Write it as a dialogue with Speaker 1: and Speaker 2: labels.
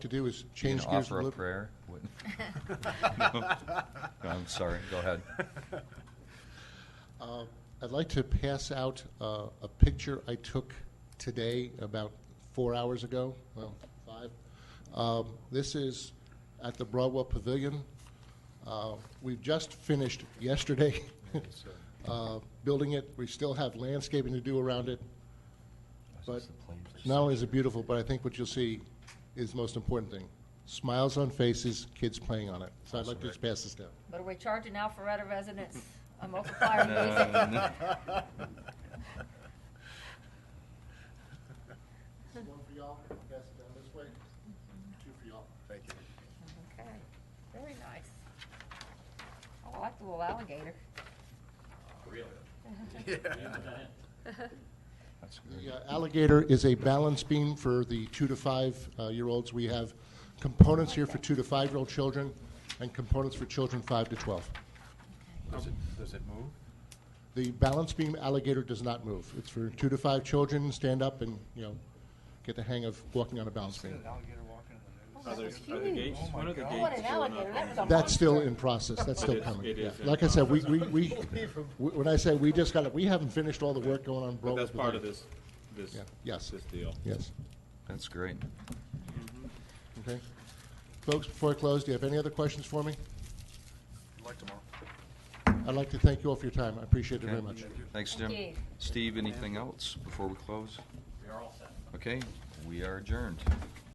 Speaker 1: to do is
Speaker 2: You
Speaker 1: change
Speaker 2: can
Speaker 1: gears a
Speaker 2: offer
Speaker 1: little.
Speaker 2: a prayer? What- No. No, I'm sorry, go ahead.
Speaker 1: Uh, I'd like to pass out uh, a picture I took today, about four hours ago, well, five. Um, This is at the Broadwell Pavilion. Uh, We've just finished yesterday uh, building it. We still have landscaping to do around it. But not only is it beautiful, but I think what you'll see is the most important thing. Smiles on faces, kids playing on it. So I'd like to just pass this down.
Speaker 3: But are we charging now for other residents a multiplier music? One for y'all, pass it down uh, this way. Two for y'all.
Speaker 4: Thank you.
Speaker 3: Okay, very nice. Oh, I like the little alligator.
Speaker 2: That's great.
Speaker 1: The uh, alligator is a balance beam for the two to five-year-olds. We have components here for two to five-year-old children and components for children five to 12.
Speaker 4: Does it, does it move?
Speaker 1: The balance beam alligator does not move. It's for two to five children, stand up and, you know, get the hang of walking on a balance beam.
Speaker 4: alligator walking in
Speaker 3: Oh,
Speaker 5: Are
Speaker 3: that
Speaker 5: there,
Speaker 3: was
Speaker 5: are the
Speaker 3: huge.
Speaker 5: gates,
Speaker 4: Oh my
Speaker 5: one of the
Speaker 4: God.
Speaker 5: gates
Speaker 3: What an
Speaker 5: going
Speaker 3: alligator, that was
Speaker 5: up.
Speaker 3: a-
Speaker 1: That's still in process, that's still
Speaker 5: It is-
Speaker 1: coming.
Speaker 5: it is
Speaker 1: Yeah.
Speaker 5: in
Speaker 1: Like I said, we, we, we, wh- when I say we just got it, we haven't finished all the work going on
Speaker 5: But
Speaker 1: Broadway.
Speaker 5: that's part of this, this,
Speaker 1: Yeah, yes.
Speaker 5: this deal.
Speaker 1: Yes,
Speaker 2: That's great.
Speaker 1: okay. Folks, before I close, do you have any other questions for me?
Speaker 4: Like tomorrow.
Speaker 1: I'd like to thank you all for your time, I appreciate it very
Speaker 2: Okay.
Speaker 1: much.
Speaker 2: Thanks, Jim.
Speaker 3: Thank you.
Speaker 2: Steve, anything else before we close? We are all set. Okay, we are adjourned.